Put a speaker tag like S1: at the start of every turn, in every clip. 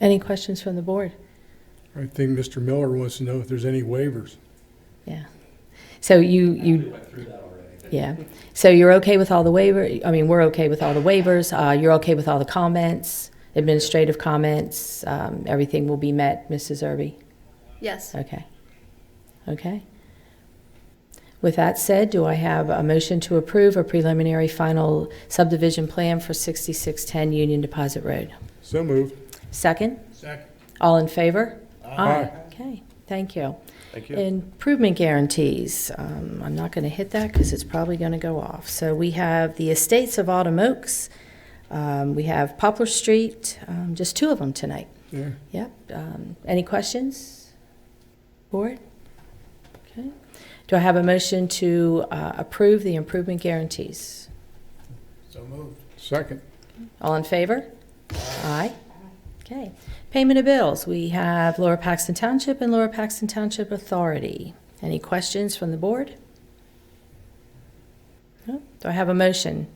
S1: Any questions from the board?
S2: I think Mr. Miller wants to know if there's any waivers.
S1: Yeah. So you, you. Yeah. So you're okay with all the waiver, I mean, we're okay with all the waivers. Uh, you're okay with all the comments, administrative comments, um, everything will be met, Mrs. Irby?
S3: Yes.
S1: Okay. Okay. With that said, do I have a motion to approve a preliminary final subdivision plan for 6610 Union Deposit Road?
S2: So moved.
S1: Second?
S2: Second.
S1: All in favor?
S2: Aye.
S1: Okay, thank you.
S4: Thank you.
S1: Improvement guarantees, um, I'm not going to hit that because it's probably going to go off. So we have the Estates of Autumn Oaks, um, we have Poplar Street, um, just two of them tonight.
S2: Yeah.
S1: Yep. Um, Any questions? Board? Okay. Do I have a motion to uh, approve the improvement guarantees?
S4: So moved.
S2: Second.
S1: All in favor? Aye. Okay. Payment of bills. We have Lower Paxton Township and Lower Paxton Township Authority. Any questions from the board? No? Do I have a motion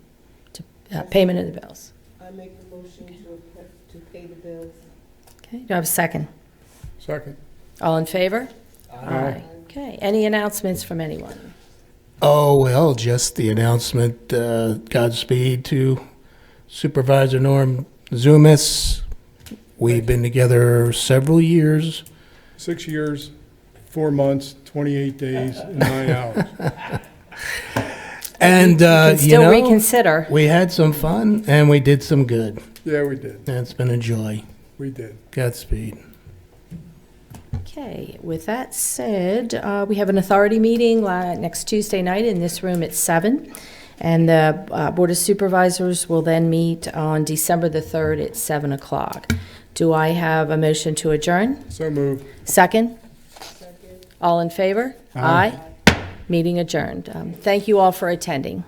S1: to uh, payment of the bills?
S5: I make the motion to, appro- to pay the bills.
S1: Okay. Do I have a second?
S2: Second.
S1: All in favor?
S2: Aye.
S1: Okay. Any announcements from anyone?
S6: Oh, well, just the announcement uh, Godspeed to Supervisor Norm Zumis. We've been together several years.
S2: Six years, four months, 28 days, and nine hours.
S6: And, uh,
S1: can
S6: you
S1: still
S6: know,
S1: reconsider.
S6: we had some fun and we did some good.
S2: Yeah, we did.
S6: And it's been a joy.
S2: We did.
S6: Godspeed.
S1: Okay, with that said, uh, we have an authority meeting la- next Tuesday night in this room at seven, And the uh, Board of Supervisors will then meet on December the 3rd at 7 o'clock. Do I have a motion to adjourn?
S2: So moved.
S1: Second? All in favor? Aye. Meeting adjourned. Um, Thank you all for attending.